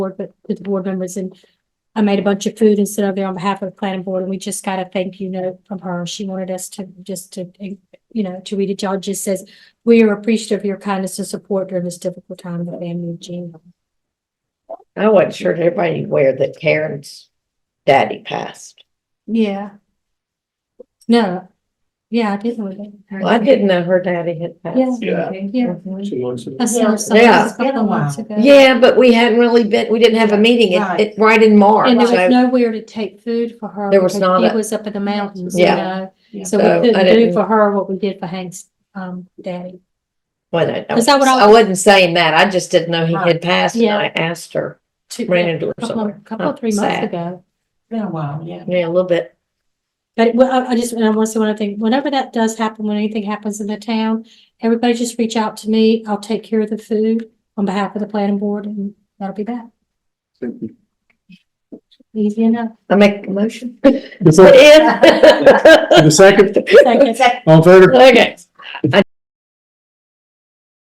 board, but to the board members and I made a bunch of food and sent over there on behalf of the planning board and we just got a thank you note from her. She wanted us to just to, you know, to read it. Y'all It just says, we are appreciative of your kindness and support during this difficult time of the family of Gina. I wasn't sure if everybody knew where that Karen's daddy passed. Yeah. No. Yeah, I didn't. know that. Well, I didn't know her daddy had passed. Yeah. Yeah. Mhm. Two months ago. I saw something Yeah. a couple months ago. Yeah, but we hadn't really been, we didn't have a meeting, it, it, right in March. And there was so- nowhere to take food for her. There was because not He a- was up in the mountains, you Yeah. know, Yeah. so So, I we couldn't do didn't- for her what we did for Hank's, um, daddy. Well, I don't- Is that what I- I wasn't saying that, I just didn't know he had passed and Yeah. I asked her, Two- ran into her Couple, somewhere. couple, three months Sad. ago. Been a while, yeah. Yeah, a little bit. But it- well, I, I just, and I want to say one other thing, whenever that does happen, when anything happens in the town, everybody just reach out to me. I'll take care of the food on behalf of the planning board and that'll be that. Easy enough. I make a motion. The Put first- in. the second, Second. all in favor? Okay. I